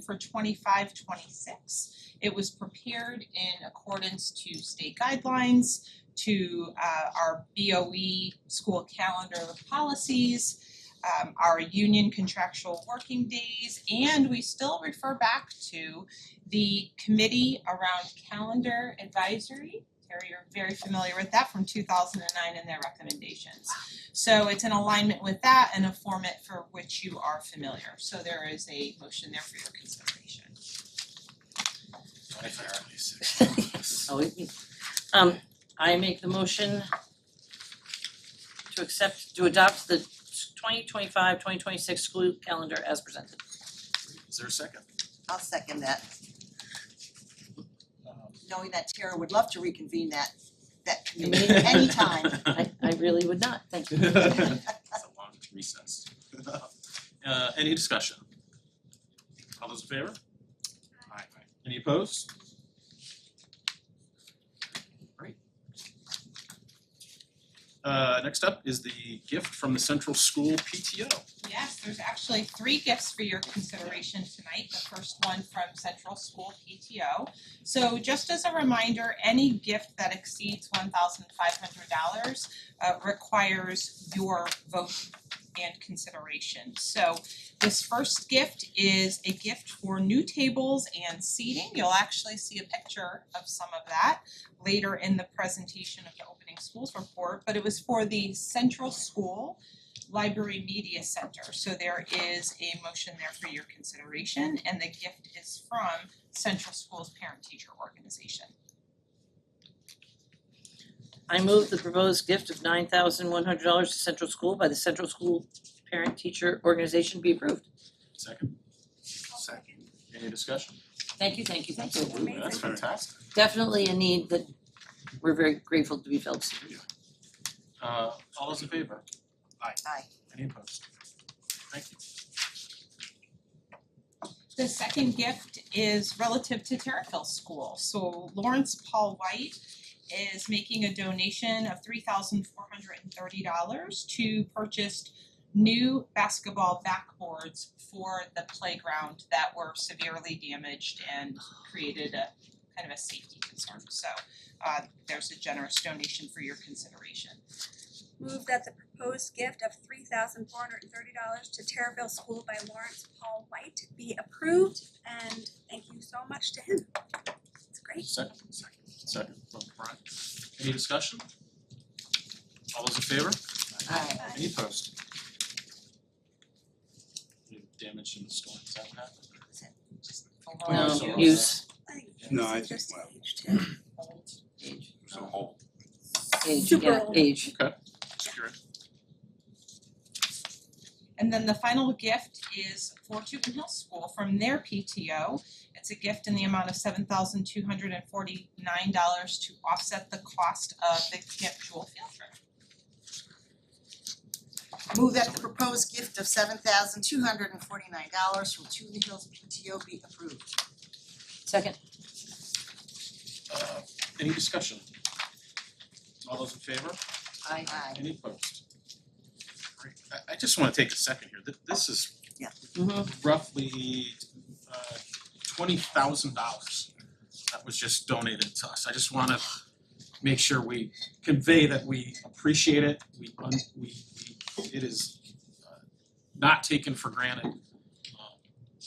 for twenty-five, twenty-six. It was prepared in accordance to state guidelines, to uh, our BOE school calendar policies, um, our union contractual working days, and we still refer back to the committee around calendar advisory. Terry, you're very familiar with that from two thousand and nine and their recommendations. So it's in alignment with that and a format for which you are familiar. So there is a motion there for your consideration. Oh, it um I make the motion to accept, to adopt the 2025-2026 school calendar as presented. Is there a second? I'll second that, Um, knowing that Tara would love to reconvene that that committee Committee? anytime. I I really would not, thank you. That's a long recess. Uh, any discussion? All those in favor? Aye. Any opposed? Great. Uh, next up is the gift from the Central School PTO. Yes, there's actually three gifts for your consideration tonight. The first one from Central School PTO. So just as a reminder, any gift that exceeds one thousand five hundred dollars uh, requires your vote and consideration. So this first gift is a gift for new tables and seating. You'll actually see a picture of some of that later in the presentation of the opening schools report, but it was for the Central School Library Media Center. So there is a motion there for your consideration and the gift is from Central School's Parent Teacher Organization. I move the proposed gift of nine thousand one hundred dollars to Central School by the Central School Parent Teacher Organization be approved. Second? Any discussion? Thank you, thank you, thank you. Ooh, That's fantastic. Definitely a need that we're very grateful to be filled. Uh, all those in favor? Aye. Aye. Any opposed? Thank you. The second gift is relative to Terriffill School. So Lawrence Paul White is making a donation of three thousand four hundred and thirty dollars to purchase new basketball backboards for the playground that were severely damaged and created a kind of a safety concern. So uh there's a generous donation for your consideration. Move that the proposed gift of three thousand four hundred and thirty dollars to Terraville School by Lawrence Paul White be approved and thank you so much to him. It's great. Second, second, second from Brian. Any discussion? All those in favor? Aye. Aye. Any opposed? Any Damage in the storm, is that what happened? No, No, So- Um, use, I think No, this I is think just my- age too. age, So whole. age, Super yeah, old. age. Secure. And then the final gift is for Tooten Hill School from their PTO. It's a gift in the amount of seven thousand two hundred and forty-nine dollars to offset the cost of the Camp Jewel field trip. Move that the proposed gift of seven thousand two hundred and forty nine dollars from Tooten Hills PTO be approved. Second, Uh, any discussion? All those in favor? aye. Aye. Any opposed? Great. I I just wanna take a second here, Th- this is Mm-hmm, roughly uh twenty thousand dollars that was just donated to us. I just wanna make sure we convey that we appreciate it, we un- we we it is uh, not taken for granted. Um,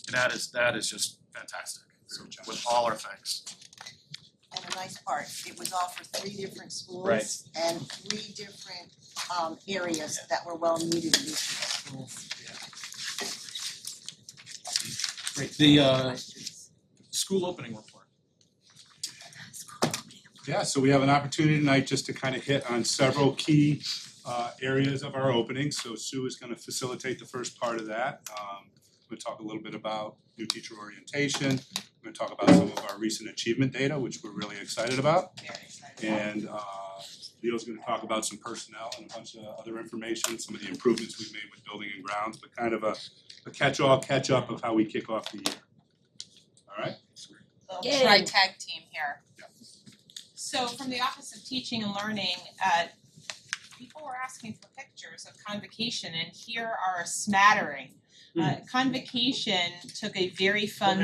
and That is that is just fantastic, so with all our thanks. And the nice part, it was all for three different schools Right. and three different um areas that were well needed in these schools. Great, the uh school opening report. Yeah, so we have an opportunity tonight just to kind of hit on several key uh, areas of our opening. So Sue is going to facilitate the first part of that. Um, We're going to talk a little bit about new teacher orientation. We're going to talk about some of our recent achievement data, which we're really excited about. Very excited. And uh, Leo's going to talk about some personnel and a bunch of other information, some of the improvements we've made with building and grounds, but kind of a a catch-all, catch-up of how we kick off the year. All right? Little Yay. tri tag team here. Yeah. So from the Office of Teaching and Learning, uh people were asking for pictures of convocation and here are a smattering. Uh convocation took a very fun